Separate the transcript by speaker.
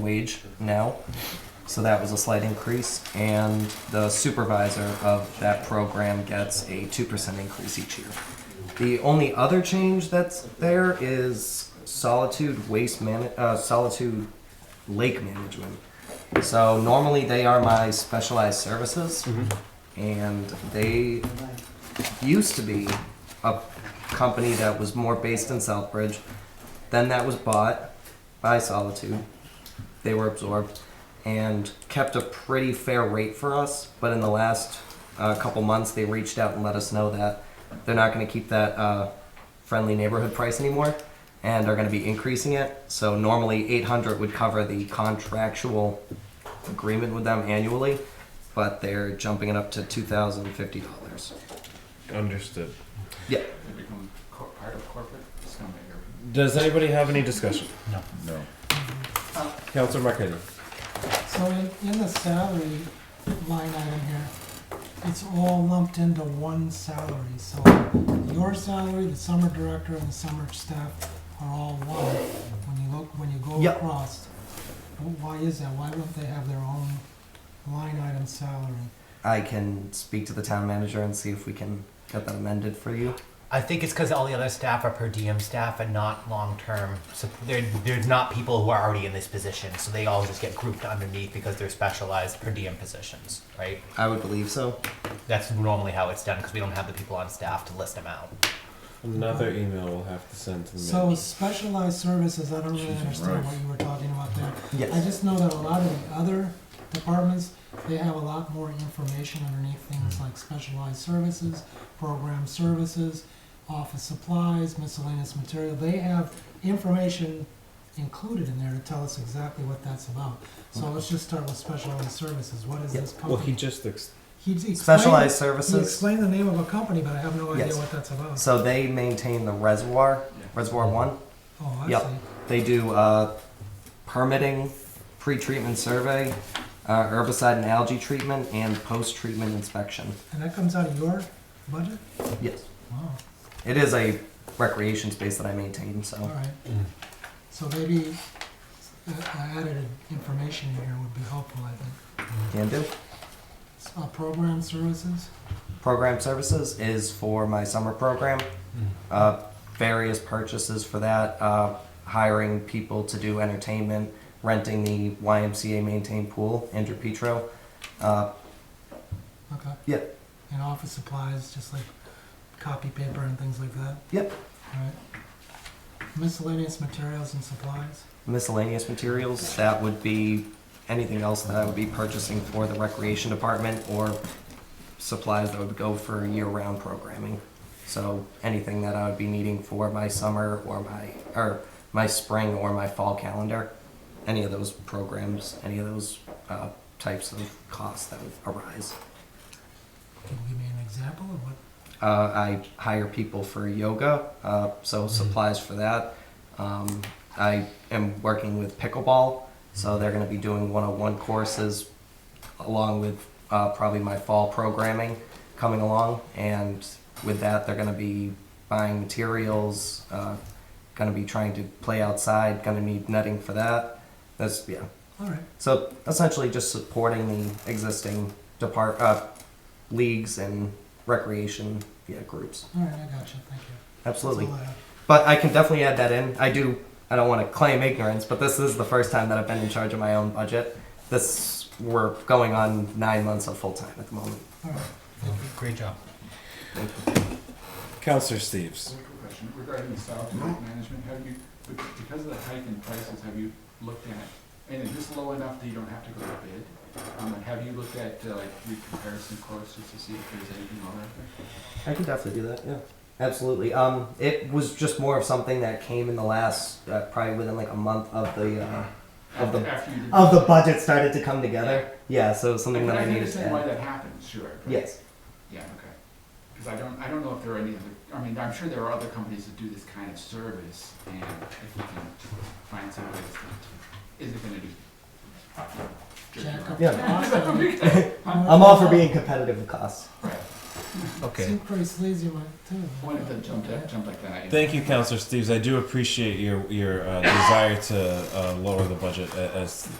Speaker 1: wage now. So that was a slight increase, and the supervisor of that program gets a 2% increase each year. The only other change that's there is solitude waste man, uh, solitude lake management. So normally they are my specialized services, and they used to be a company that was more based in Southbridge. Then that was bought by Solitude. They were absorbed and kept a pretty fair rate for us. But in the last uh, couple months, they reached out and let us know that they're not going to keep that uh, friendly neighborhood price anymore and are going to be increasing it. So normally 800 would cover the contractual agreement with them annually, but they're jumping it up to $2,050.
Speaker 2: Understood.
Speaker 1: Yeah.
Speaker 3: become cor- part of corporate, it's gonna make everything.
Speaker 2: Does anybody have any discussion?
Speaker 4: No.
Speaker 2: Councilor Marquetti.
Speaker 5: So in, in the salary line item here, it's all lumped into one salary, so your salary, the summer director, and the summer staff are all one, when you look, when you go
Speaker 1: Yep.
Speaker 5: across. Wh- Why is that? Why don't they have their own line item salary?
Speaker 1: I can speak to the town manager and see if we can get that amended for you.
Speaker 6: I think it's because all the other staff are per diem staff and not long term. So they're, they're not people who are already in this position, so they all just get grouped underneath because they're specialized per diem positions, right?
Speaker 1: I would believe so.
Speaker 6: That's normally how it's done because we don't have the people on staff to list them out.
Speaker 2: Another email we'll have to send to the
Speaker 5: So specialized services, I don't really
Speaker 4: Jesus
Speaker 5: understand
Speaker 4: Christ.
Speaker 5: what you were talking about there. I
Speaker 1: Yes.
Speaker 5: just know that a lot of the other departments, they have a lot more information underneath things like specialized services, program services, office supplies, miscellaneous material. They have information included in there to tell us exactly what that's about. So let's just start with specialized services. What is this
Speaker 2: Well, he
Speaker 5: company?
Speaker 2: just ex-
Speaker 5: He d- explained-
Speaker 1: Specialized
Speaker 5: He
Speaker 1: services.
Speaker 5: explained the name of a company, but I have no idea
Speaker 1: Yes.
Speaker 5: what that's about.
Speaker 1: So they maintain the reservoir, Reservoir One.
Speaker 5: Oh, I
Speaker 1: Yep.
Speaker 5: see.
Speaker 1: They do uh, permitting, pre-treatment survey, uh, herbicide and algae treatment, and post-treatment inspection.
Speaker 5: And that comes out of your budget?
Speaker 1: Yes.
Speaker 5: Wow.
Speaker 1: It is a recreation space that I maintain,
Speaker 5: All
Speaker 1: so
Speaker 5: right.
Speaker 6: Mm.
Speaker 5: So maybe uh, added information here would be helpful, I think.
Speaker 1: can do.
Speaker 5: S- Uh, program services,
Speaker 1: Program services is for my summer program. Uh, various purchases for that, uh, hiring people to do entertainment, renting the YMCA maintained pool, Andrew Petro. Uh,
Speaker 5: okay,
Speaker 1: yep,
Speaker 5: and office supplies, just like copy paper and things like that,
Speaker 1: yep.
Speaker 5: all right? Miscellaneous materials and supplies,
Speaker 1: Miscellaneous materials, that would be anything else that I would be purchasing for the recreation department or supplies that would go for year-round programming. So anything that I would be needing for my summer or my or my spring or my fall calendar, any of those programs, any of those uh, types of costs that would arise.
Speaker 5: can you give me an example of what?
Speaker 1: Uh, I hire people for yoga, uh, so supplies for that. Um, I am working with pickleball, so they're going to be doing 101 courses along with uh, probably my fall programming coming along. And with that, they're going to be buying materials, uh, going to be trying to play outside, going to need netting for that. That's, yeah.
Speaker 5: All right,
Speaker 1: So essentially, just supporting the existing depart uh, leagues and recreation yeah, groups.
Speaker 5: all right, I got you, thank you. That's
Speaker 1: Absolutely.
Speaker 5: all I have.
Speaker 1: But I can definitely add that in. I do. I don't want to claim ignorance, but this is the first time that I've been in charge of my own budget. This we're going on nine months of full time at the moment.
Speaker 5: All right,
Speaker 6: Great job.
Speaker 2: Councilor Steves.
Speaker 3: So, quick question regarding the solid waste management, have you, be- because of the hike in prices, have you looked at, and is this low enough that you don't have to go to bid? Um, and have you looked at, uh, like, re- comparison quotes just to see if there's anything wrong out there?
Speaker 1: I can definitely do that. Yeah, absolutely. Um, it was just more of something that came in the last uh, probably within like a month of the uh, of the
Speaker 3: After you did.
Speaker 1: of the budget started to come together. Yeah, so it was something
Speaker 3: And
Speaker 1: that I
Speaker 3: I
Speaker 1: needed to
Speaker 3: understand why
Speaker 1: add.
Speaker 3: that happens, sure. but-
Speaker 1: Yes.
Speaker 3: Yeah, okay. Because I don't, I don't know if there are any other, I mean, I'm sure there are other companies that do this kind of service, and if we can find some ways that, is it gonna be?
Speaker 5: Jack up.
Speaker 1: Yeah.
Speaker 5: the cost.
Speaker 1: I'm all for being competitive with costs.
Speaker 5: Seems pretty sleazy, one, too.
Speaker 3: One of them jumped up, jumped like that. you know.
Speaker 2: Thank you, Councilor Steves. I do appreciate your your uh, desire to uh, lower the budget a- as